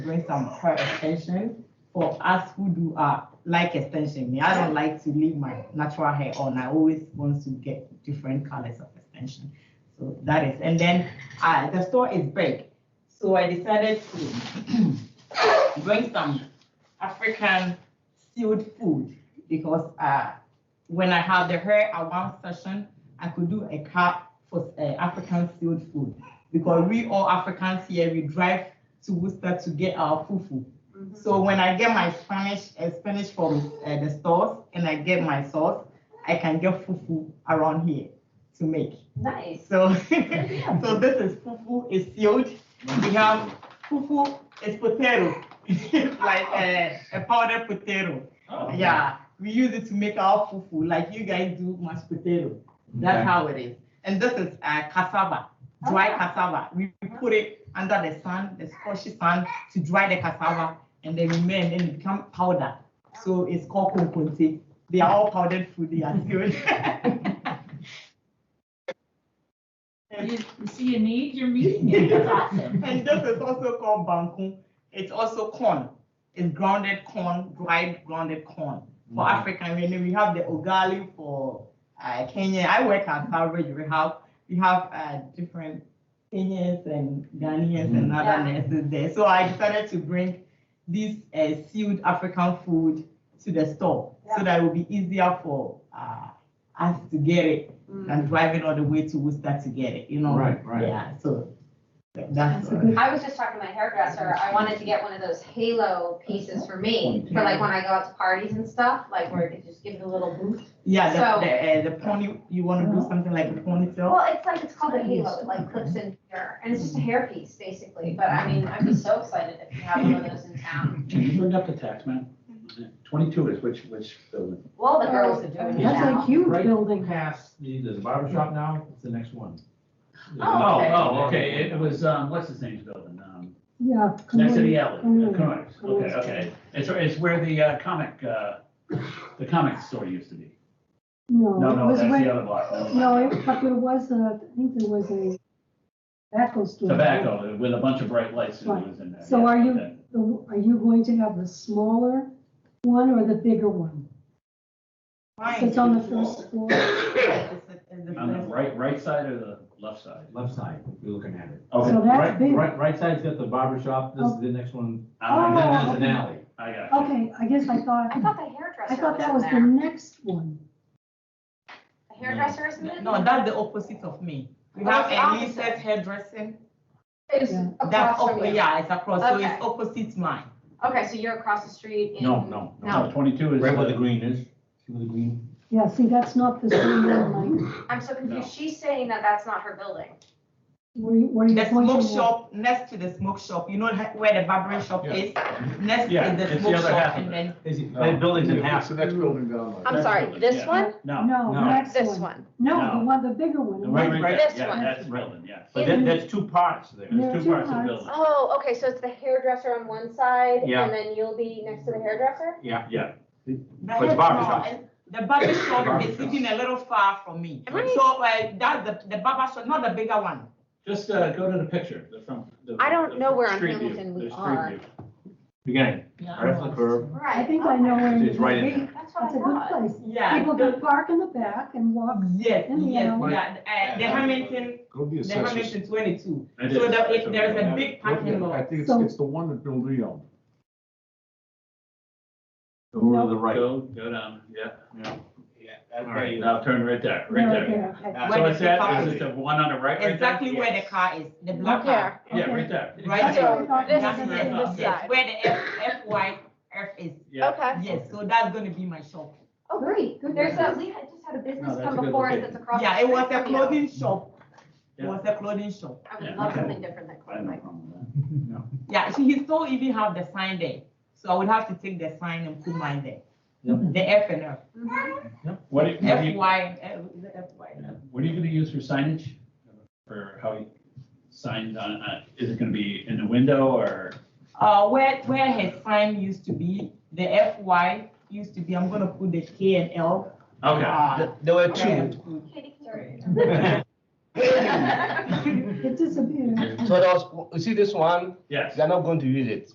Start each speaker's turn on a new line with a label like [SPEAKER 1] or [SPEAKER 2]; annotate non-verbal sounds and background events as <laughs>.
[SPEAKER 1] bring some clarification for us who do our like extension. Me, I don't like to leave my natural hair on. I always want to get different colors of extension. So that is, and then uh, the store is big, so I decided to <clears throat> bring some African sealed food because uh, when I had the hair at one session, I could do a card for uh, African sealed food because we all Africans here we drive to Worcester to get our fufu.
[SPEAKER 2] Mm-hmm.
[SPEAKER 1] So when I get my Spanish uh, Spanish from uh, the stores and I get my sauce, I can get fufu around here to make.
[SPEAKER 2] Nice.
[SPEAKER 1] So <laughs> so this is fufu is sealed. We have fufu is potato, <laughs> like a, a powdered potato.
[SPEAKER 3] Oh.
[SPEAKER 4] <laughs>
[SPEAKER 1] Yeah, we use it to make our fufu, like you guys do mashed potato. That's
[SPEAKER 3] Okay.
[SPEAKER 1] how it is. And this is uh, cassava, dry
[SPEAKER 2] Ah.
[SPEAKER 1] cassava. We we put it under the sun, the scorchy sun, to dry the cassava, and they remain and it become powder. So it's called konkonte. They are all powdered food. They are sealed. <laughs>
[SPEAKER 5] You you see a need, you're meeting it. That's awesome.
[SPEAKER 1] and this is also called banku. It's also corn. It's grounded corn, dried grounded corn. For
[SPEAKER 3] Mhm.
[SPEAKER 1] African, we know we have the ugali for uh, Kenya. I work at Salvage Rehab. We have uh, different Kenyans and Ghanaians and
[SPEAKER 2] Mhm.
[SPEAKER 1] other nurses there. So I decided to bring this uh, sealed African food to the store so
[SPEAKER 2] Yeah.
[SPEAKER 1] that it will be easier for uh, us to get it than driving all the way to Worcester to get it. You know.
[SPEAKER 3] Right, right.
[SPEAKER 1] Yeah. So th- that's.
[SPEAKER 5] That's a
[SPEAKER 1] all.
[SPEAKER 5] good-
[SPEAKER 2] I was just talking to my hairdresser, I wanted to get one of those halo pieces for me, for like when I go out to parties and stuff, like where it could just give it a little boost.
[SPEAKER 1] Yeah,
[SPEAKER 2] So-
[SPEAKER 1] the, the, uh, the pony, you wanna do something like a ponytail?
[SPEAKER 2] Well, it's like, it's called a halo, it like clips in here, and it's just a hairpiece, basically, but I mean, I'd be so excited if you had one of those in town.
[SPEAKER 3] Can you bring up the tax map? Twenty-two is which, which building?
[SPEAKER 2] Well, the girls are doing it
[SPEAKER 6] That's
[SPEAKER 2] now.
[SPEAKER 6] a huge
[SPEAKER 4] Right.
[SPEAKER 6] building.
[SPEAKER 4] Past, the- there's a barber shop now, it's the next one.
[SPEAKER 2] Oh, okay.
[SPEAKER 3] Oh, okay, it was, um, what's his name's building, um,
[SPEAKER 6] Yeah.
[SPEAKER 3] next to the
[SPEAKER 6] Kamui.
[SPEAKER 3] alley, Connors, okay,
[SPEAKER 6] Kamui.
[SPEAKER 3] okay. It's, where- it's where the uh, comic, uh, the comic store used to be.
[SPEAKER 6] <laughs> No.
[SPEAKER 3] No,
[SPEAKER 6] it
[SPEAKER 3] no,
[SPEAKER 6] was
[SPEAKER 3] that's
[SPEAKER 6] when-
[SPEAKER 3] the other Oh, block. never mind.
[SPEAKER 6] No, it- but there was a, I think there was a tobacco store.
[SPEAKER 3] Tobacco, with a bunch of bright lights that
[SPEAKER 6] Right.
[SPEAKER 3] was in there.
[SPEAKER 6] So
[SPEAKER 3] yeah,
[SPEAKER 6] are you-
[SPEAKER 3] okay.
[SPEAKER 6] The- Are you going to have the smaller one or the bigger one? So It's on the first floor.
[SPEAKER 3] On the right, right side or the left side?
[SPEAKER 4] Left side, you're looking at it.
[SPEAKER 3] Okay,
[SPEAKER 6] So that's
[SPEAKER 3] right,
[SPEAKER 6] big.
[SPEAKER 4] Right, right side's got the barber shop, this is the next one, and then
[SPEAKER 3] I
[SPEAKER 4] there's an alley.
[SPEAKER 3] I got you.
[SPEAKER 6] Okay, I guess I
[SPEAKER 2] I
[SPEAKER 6] thought,
[SPEAKER 2] thought the hairdresser
[SPEAKER 6] I thought that was
[SPEAKER 2] was
[SPEAKER 6] the
[SPEAKER 2] in there.
[SPEAKER 6] next one.
[SPEAKER 2] The hairdresser isn't it?
[SPEAKER 1] No, that's the opposite of me. We
[SPEAKER 2] Oh,
[SPEAKER 1] have
[SPEAKER 2] it's opposite.
[SPEAKER 1] Elisa's hairdressing,
[SPEAKER 2] It's
[SPEAKER 6] Yeah.
[SPEAKER 2] across
[SPEAKER 1] that's,
[SPEAKER 2] from
[SPEAKER 1] op-
[SPEAKER 2] you.
[SPEAKER 1] yeah, it's across, so
[SPEAKER 2] Okay.
[SPEAKER 1] it's opposite mine.
[SPEAKER 2] Okay, so you're across the street in.
[SPEAKER 4] No, no,
[SPEAKER 2] No.
[SPEAKER 4] no.
[SPEAKER 3] No, twenty-two is.
[SPEAKER 4] Right where the green is, see where the green?
[SPEAKER 6] Yeah, see, that's not the same one, Mike.
[SPEAKER 2] I'm so
[SPEAKER 3] No.
[SPEAKER 2] confused. She's saying that that's not her building.
[SPEAKER 6] Were you, were you
[SPEAKER 1] The
[SPEAKER 6] pointing
[SPEAKER 1] smoke
[SPEAKER 6] at-
[SPEAKER 1] shop, next to the smoke shop, you know he- where the barbering shop
[SPEAKER 4] Yeah.
[SPEAKER 1] is? Next
[SPEAKER 3] Yeah,
[SPEAKER 1] is
[SPEAKER 3] it's
[SPEAKER 1] the
[SPEAKER 3] the
[SPEAKER 1] smoke
[SPEAKER 3] other
[SPEAKER 1] shop
[SPEAKER 3] half of
[SPEAKER 1] and
[SPEAKER 3] it.
[SPEAKER 1] then,
[SPEAKER 4] Is it, that building's in half.
[SPEAKER 7] the next building down
[SPEAKER 3] I'm sorry, this one? No.
[SPEAKER 6] No,
[SPEAKER 4] No.
[SPEAKER 6] next one.
[SPEAKER 8] one.
[SPEAKER 6] No,
[SPEAKER 3] No.
[SPEAKER 6] the one, the bigger one.
[SPEAKER 3] The Right,
[SPEAKER 6] Right.
[SPEAKER 3] right,
[SPEAKER 8] This
[SPEAKER 3] yeah,
[SPEAKER 8] one.
[SPEAKER 3] that's building, yes.
[SPEAKER 4] But that, that's two parts there.
[SPEAKER 6] Yeah.
[SPEAKER 3] There's two
[SPEAKER 6] Two
[SPEAKER 3] parts of the
[SPEAKER 6] parts.
[SPEAKER 3] building.
[SPEAKER 8] Oh, okay, so it's the hairdresser on one side,
[SPEAKER 4] Yeah.
[SPEAKER 8] and then you'll be next to the hairdresser?
[SPEAKER 4] Yeah.
[SPEAKER 3] Yeah.
[SPEAKER 1] the
[SPEAKER 4] But the
[SPEAKER 1] hair-
[SPEAKER 4] barber
[SPEAKER 1] no,
[SPEAKER 4] shop.
[SPEAKER 1] and the barber shop
[SPEAKER 4] barber
[SPEAKER 1] is
[SPEAKER 4] shop.
[SPEAKER 1] sitting a little far from me.
[SPEAKER 8] Am I-
[SPEAKER 1] So, uh, that's the, the barber shop, not the bigger one.
[SPEAKER 3] Just, uh, go to the picture, the front. the-
[SPEAKER 8] I don't
[SPEAKER 3] the
[SPEAKER 8] know where on
[SPEAKER 3] street view,
[SPEAKER 8] Hamilton we
[SPEAKER 3] the street
[SPEAKER 8] are.
[SPEAKER 3] view.
[SPEAKER 4] Beginning, right off the curb,
[SPEAKER 2] Right.
[SPEAKER 6] I think I know where.
[SPEAKER 4] It's
[SPEAKER 6] it is.
[SPEAKER 4] right in there.
[SPEAKER 5] Oh
[SPEAKER 2] That's what I
[SPEAKER 6] That's a
[SPEAKER 2] thought.
[SPEAKER 6] good place.
[SPEAKER 1] Yeah.
[SPEAKER 6] People
[SPEAKER 1] the-
[SPEAKER 6] can park in the back and walk.
[SPEAKER 1] Yes,
[SPEAKER 6] In the
[SPEAKER 1] yes,
[SPEAKER 6] alley.
[SPEAKER 1] yeah, uh, the Hamilton,
[SPEAKER 7] Go to the
[SPEAKER 1] the
[SPEAKER 7] assessors.
[SPEAKER 1] Hamilton twenty-two.
[SPEAKER 3] I
[SPEAKER 1] So
[SPEAKER 3] did.
[SPEAKER 1] that if there's a big
[SPEAKER 7] Look
[SPEAKER 1] parking
[SPEAKER 7] at it. I
[SPEAKER 1] lot,
[SPEAKER 7] think it's,
[SPEAKER 6] So-
[SPEAKER 7] it's the one that Bill Lee owned.
[SPEAKER 4] over to the right.
[SPEAKER 3] Go, go down, yeah.
[SPEAKER 9] Yeah,
[SPEAKER 4] All
[SPEAKER 9] that
[SPEAKER 4] right,
[SPEAKER 9] way,
[SPEAKER 3] Now turn right there, right
[SPEAKER 6] No,
[SPEAKER 3] there.
[SPEAKER 6] okay, okay.
[SPEAKER 3] So
[SPEAKER 1] Where
[SPEAKER 3] it's
[SPEAKER 1] the
[SPEAKER 3] that,
[SPEAKER 1] car
[SPEAKER 3] is it the one on the right, right there?
[SPEAKER 1] exactly where the car is, the black
[SPEAKER 8] Look
[SPEAKER 1] car.
[SPEAKER 8] here,
[SPEAKER 3] Yeah,
[SPEAKER 6] Okay.
[SPEAKER 3] right there.
[SPEAKER 1] Right
[SPEAKER 8] So
[SPEAKER 1] there.
[SPEAKER 6] this
[SPEAKER 1] That's
[SPEAKER 6] is
[SPEAKER 1] where-
[SPEAKER 6] on
[SPEAKER 8] this
[SPEAKER 1] yes,
[SPEAKER 8] side.
[SPEAKER 1] Where the F, FY, F is,
[SPEAKER 3] Yeah.
[SPEAKER 8] okay.
[SPEAKER 1] yes, so that's gonna be my shop.
[SPEAKER 2] Oh, great.
[SPEAKER 6] Good
[SPEAKER 2] There's
[SPEAKER 6] place.
[SPEAKER 2] a, we had just had a
[SPEAKER 3] No,
[SPEAKER 2] business
[SPEAKER 3] that's a
[SPEAKER 2] come
[SPEAKER 3] good
[SPEAKER 2] before us
[SPEAKER 3] location.
[SPEAKER 2] that's across. the
[SPEAKER 1] Yeah, it was
[SPEAKER 2] street
[SPEAKER 1] a
[SPEAKER 2] from you.
[SPEAKER 1] clothing shop, it
[SPEAKER 3] Yeah.
[SPEAKER 1] was a clothing shop.
[SPEAKER 2] I would
[SPEAKER 3] Yeah,
[SPEAKER 2] love
[SPEAKER 3] okay.
[SPEAKER 2] something different than
[SPEAKER 3] I have no
[SPEAKER 2] clothing.
[SPEAKER 3] problem with
[SPEAKER 4] <laughs>
[SPEAKER 1] Yeah, so he still even have the sign there, so I would have to take the sign and put mine there.
[SPEAKER 4] Yep.
[SPEAKER 1] The F and F,
[SPEAKER 2] Mhm.
[SPEAKER 3] that. What do you- what do you-
[SPEAKER 1] FY, eh, the FY.
[SPEAKER 3] What are you gonna use for signage? For how you sign on, on- is it gonna be in the window or?
[SPEAKER 1] Uh, where, where his sign used to be, the FY used to be, I'm gonna put the K and L. uh,
[SPEAKER 9] There were
[SPEAKER 1] where-
[SPEAKER 9] two,
[SPEAKER 1] <laughs>
[SPEAKER 6] Mm-hmm.
[SPEAKER 2] Katie can do it.
[SPEAKER 3] Uh, <laughs>
[SPEAKER 6] It
[SPEAKER 4] <laughs>
[SPEAKER 6] disappeared.
[SPEAKER 9] so there was, you see this one,
[SPEAKER 3] Yes.
[SPEAKER 9] they're not going to use it.